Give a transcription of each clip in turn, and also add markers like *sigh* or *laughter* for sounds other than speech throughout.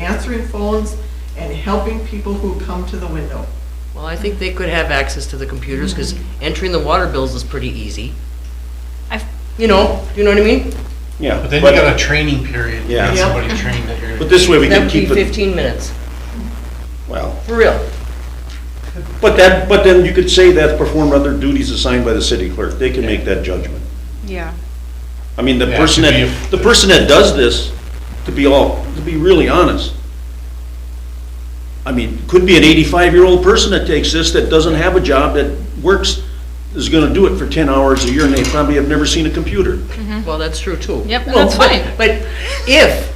answering phones and helping people who come to the window. Well, I think they could have access to the computers, because entering the water bills is pretty easy. I've- You know, you know what I mean? Yeah. But then you got a training period, to Yeah. get somebody trained that you're But gonna. *laughs* this way we That can would be keep it, fifteen minutes, well, for real. but that, but then you could say that's performed other duties assigned by the city clerk. They can make that judgment. Yeah. I mean, the Yeah, it person could be that, if- the person that does this, to be all, to be really honest, I mean, could be an eighty-five-year-old person that takes this, that doesn't have a job, that works, is gonna do it for ten hours a year, and they probably have never seen a computer. Well, that's true, too. Hmm. *laughs* Yep, Well, that's but- fine. But if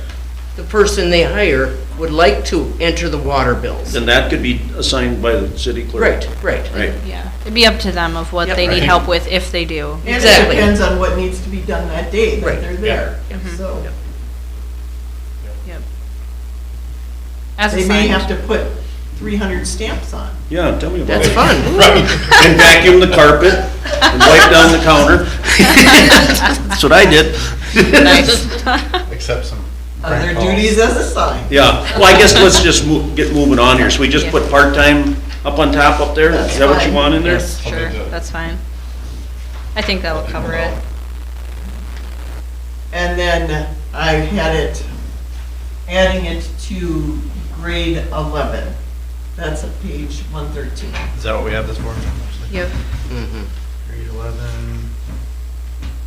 the person they hire would like to enter the water bills. Then that could be assigned by the city clerk. Right, right. Right. Yeah, it'd be up to them of what Yep. they I need think- help with, if they do. And it Exactly. depends on what needs to be done that day that Right, they're yeah, there, so. As They may have assigned. to put three hundred stamps on. Yeah, tell me about That's it. *laughs* fun. And vacuum the carpet, and wipe down the counter. That's what I did. *laughs* Accept some. Other prank calls. duties as assigned. Yeah, well, I guess let's just move, get moving on here, so we just put part-time up on top up there, is that what you want in there? Yes, I'll do sure, that. that's fine. I think that'll cover it. And then I had it, adding it to grade eleven. That's at page one thirteen. Is that what we have this for? Yep, Mhm. Grade eleven,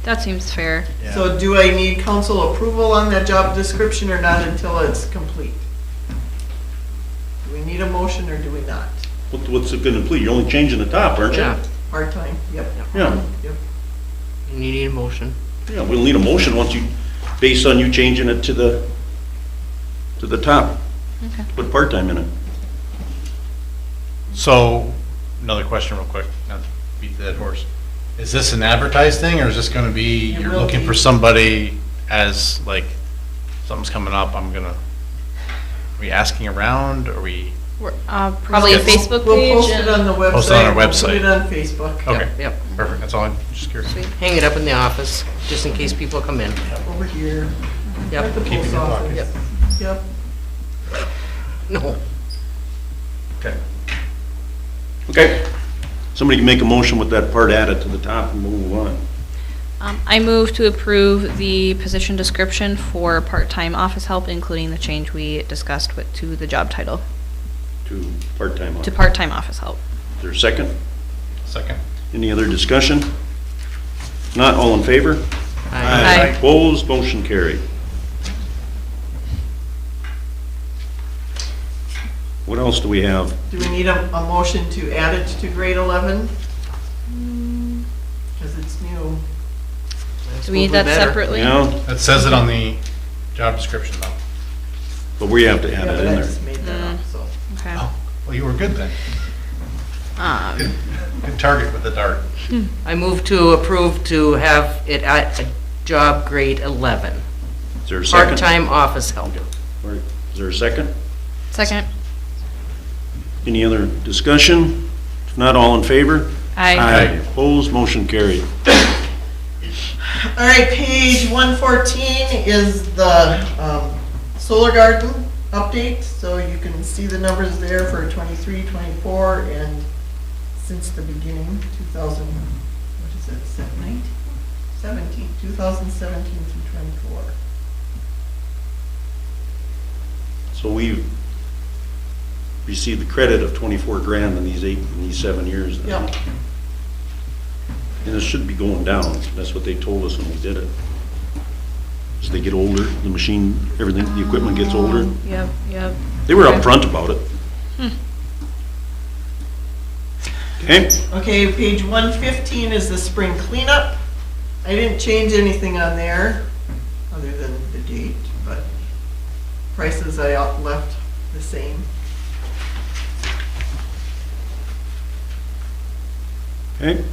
that seems fair. So yeah. do I need council approval on that job description or not until it's complete? Do we need a motion or do we not? What- What's it gonna please, you're only changing the top, aren't you? Yeah, Part-time, yep, Yeah, yep. you need a motion. yeah, we'll need a motion once you, based on you changing it to the, to the top. Okay. Put part-time in it. So, another question real quick, not to beat the dead horse. Is this an advertised thing or is this gonna be, It you're will looking for be. somebody as like, something's coming up, I'm gonna, are we asking around? Are we, We're, uh, Probably a Yes. Facebook We'll page. post it and- on the website. Post it on our We'll Put it website. on Facebook. okay, Yep, Yep, perfect, that's all, I'm just curious. Sweet. hang it up in the office, just in case people come in. Over here. At Yep, the Keep it in post your pocket. office. Yep. no. Okay. Okay. Somebody can make a motion with that part added to the top and move on. Um, I move to approve the position description for part-time office help, including the change we discussed with, to the job title, to part-time to office. part-time office help. Is there a second? Second. Any other discussion? Not all in favor? I- Aye. Opposed, motion carried. What else do we have? Do we need a, a motion to add it to grade 11? Because it's new. Do we need that Better. separately? Yeah, That says it on the job description though. but we have to Yeah, add it but in I there. just made that up, so. Okay. Oh, well, you were good then. Um, Good target with the dart. I move to approve to have it at a job grade 11, Is there a second? part-time office help. Or Is there a second? Second. Any other discussion? If not, all in favor? Aye. Opposed, motion carried. All right, page 114 is the um, solar garden update, so you can see the numbers there for 23, 24, and since the beginning, 2000, what is it, 17? 17, 2017 through 24. So we've received the credit of 24 grand in these eight, in these seven years. now. Yep. And it should be going down. That's what they told us when we did it. As they get older, the machine, everything, the equipment gets older. Um, Yep, yep. They were upfront about it. Okay, Okay, page one fifteen is the spring cleanup. I didn't change anything on there, other than the date, but prices I out- left the same. okay.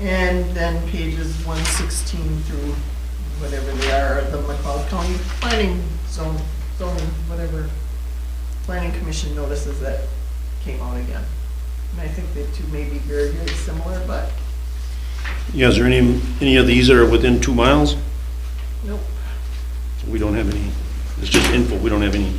And then pages one sixteen through whatever they are, the McLeod County Planning Zone, zoning, whatever, Planning Commission notices that came out again. And I think the two may be very, very similar, but Yeah, is there any, any of these that are within two miles? nope. We don't have any, it's just info, we don't have any